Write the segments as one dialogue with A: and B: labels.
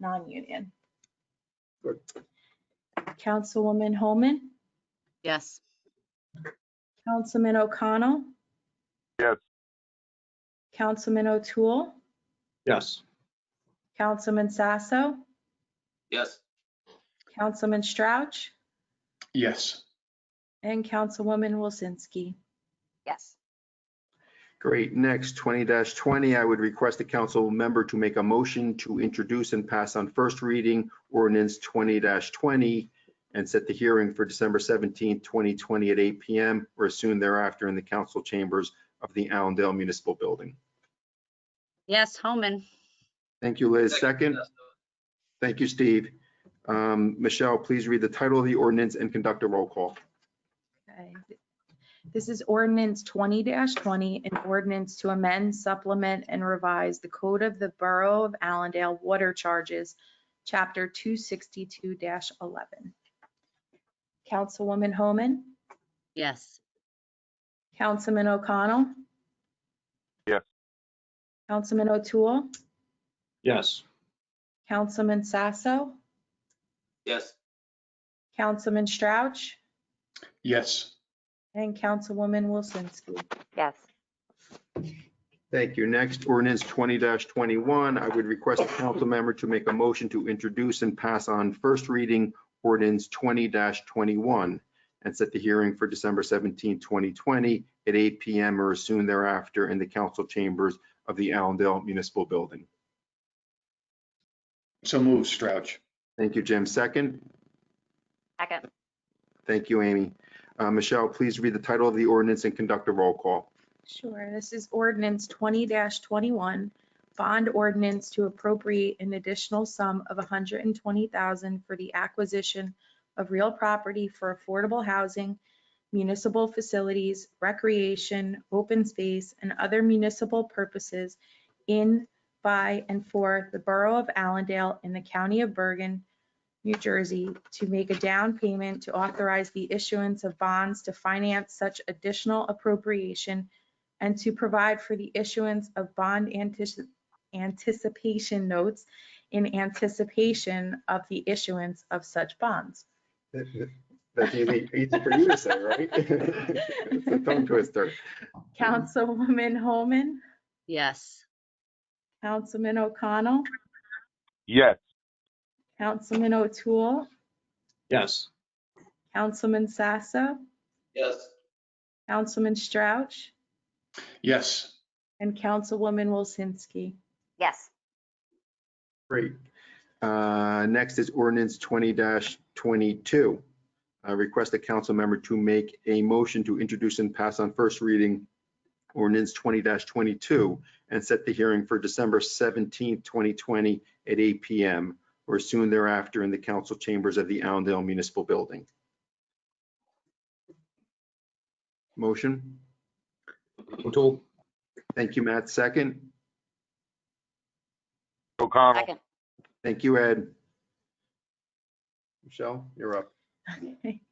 A: non-union.
B: Good.
A: Councilwoman Holman,
C: Yes.
A: Councilman O'Connell.
D: Yes.
A: Councilman O'Toole,
B: Yes.
A: Councilman Sasso,
E: yes,
A: Councilman Strouch,
B: Yes.
A: and Councilwoman Wilsinski.
C: Yes.
B: Great. Next, twenty twenty, I would request the council member to make a motion to introduce and pass on first reading ordinance twenty twenty and set the hearing for December seventeenth, twenty twenty at eight PM or soon thereafter in the council chambers of the Allendale Municipal Building.
C: Yes, Homan.
B: Thank you, Liz. Second,
E: Yes.
B: thank you, Steve. Um, Michelle, please read the title of the ordinance and conduct a roll call.
A: Okay. This is ordinance twenty twenty, an ordinance to amend, supplement, and revise the code of the Borough of Allendale Water Charges, Chapter two sixty-two eleven. Councilwoman Homan,
C: Yes.
A: Councilman O'Connell.
D: Yes.
A: Councilman O'Toole,
B: Yes.
A: Councilman Sasso,
E: yes,
A: Councilman Strouch,
B: Yes.
A: and Councilwoman Wilsinski.
C: Yes.
B: Thank you. Next, ordinance twenty twenty-one, I would request a council member to make a motion to introduce and pass on first reading ordinance twenty twenty-one and set the hearing for December 17, twenty twenty at eight PM or soon thereafter in the council chambers of the Allendale Municipal Building.
F: So move, Strouch.
B: Thank you, Jim. Second?
C: Second.
B: Thank you, Amy. Uh, Michelle, please read the title of the ordinance and conduct a roll call.
A: Sure, this is ordinance twenty twenty-one, bond ordinance to appropriate an additional sum of hundred and twenty thousand for the acquisition of real property for affordable housing, municipal facilities, recreation, open space, and other municipal purposes in, by, and for the Borough of Allendale in the County of Bergen, New Jersey, to make a down payment to authorize the issuance of bonds to finance such additional appropriation and to provide for the issuance of bond antici- anticipation notes in anticipation of the issuance of such bonds.
B: That's easy, easy for you to say, right? It's a tongue twister.
A: Councilwoman Holman,
C: Yes.
A: Councilman O'Connell,
D: yes,
A: Councilman O'Toole,
F: Yes.
A: Councilman Sasso,
E: yes,
A: Councilman Strouch,
F: Yes.
A: and Councilwoman Wilsinski.
C: Yes.
B: Great. Uh, Next is ordinance twenty twenty-two. I request a council member to make a motion to introduce and pass on first reading ordinance twenty twenty-two and set the hearing for December seventeenth, twenty twenty at eight PM or soon thereafter in the council chambers of the Allendale Municipal Building. Motion?
F: O'Toole?
B: Thank you, Matt. Second?
D: O'Connell,
C: Second.
B: Thank you, Ed. Michelle, you're up.
A: Okay.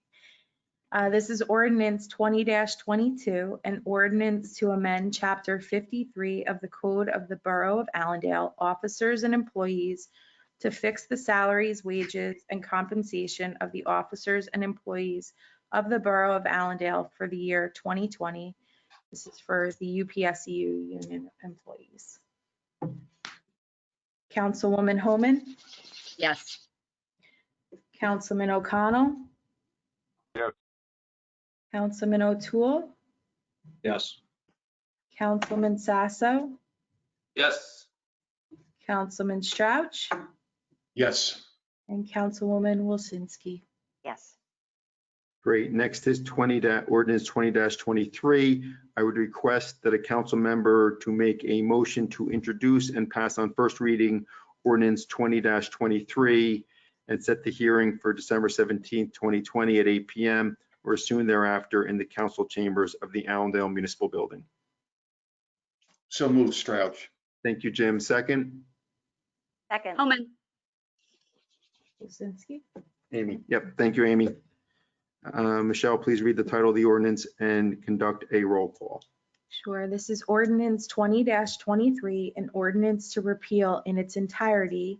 A: Uh, This is ordinance twenty twenty-two, an ordinance to amend chapter fifty-three of the Code of the Borough of Allendale, officers and employees to fix the salaries, wages, and compensation of the officers and employees of the Borough of Allendale for the year twenty twenty. This is for the UPSU union employees. Councilwoman Homan,
C: Yes.
A: Councilman O'Connell.
D: Yes.
A: Councilman O'Toole,
F: Yes.
A: Councilman Sasso,
E: yes,
A: Councilman Strouch,
F: Yes.
A: and Councilwoman Wilsinski.
C: Yes.
B: Great. Next is 20, da- ordinance 20-23. I would request that a council member to make a motion to introduce and pass on first reading ordinance 20-23 and set the hearing for December 17th, 2020 at 8 PM or soon thereafter in the council chambers of the Allendale Municipal Building.
F: So move, Strouch.
B: Thank you, Jim. Second?
C: Second. Homan.
A: Wilsinski?
B: Amy. Yep. Thank you, Amy. Uh, Michelle, please read the title of the ordinance and conduct a roll call.
A: Sure, this is ordinance twenty twenty-three, an ordinance to repeal in its entirety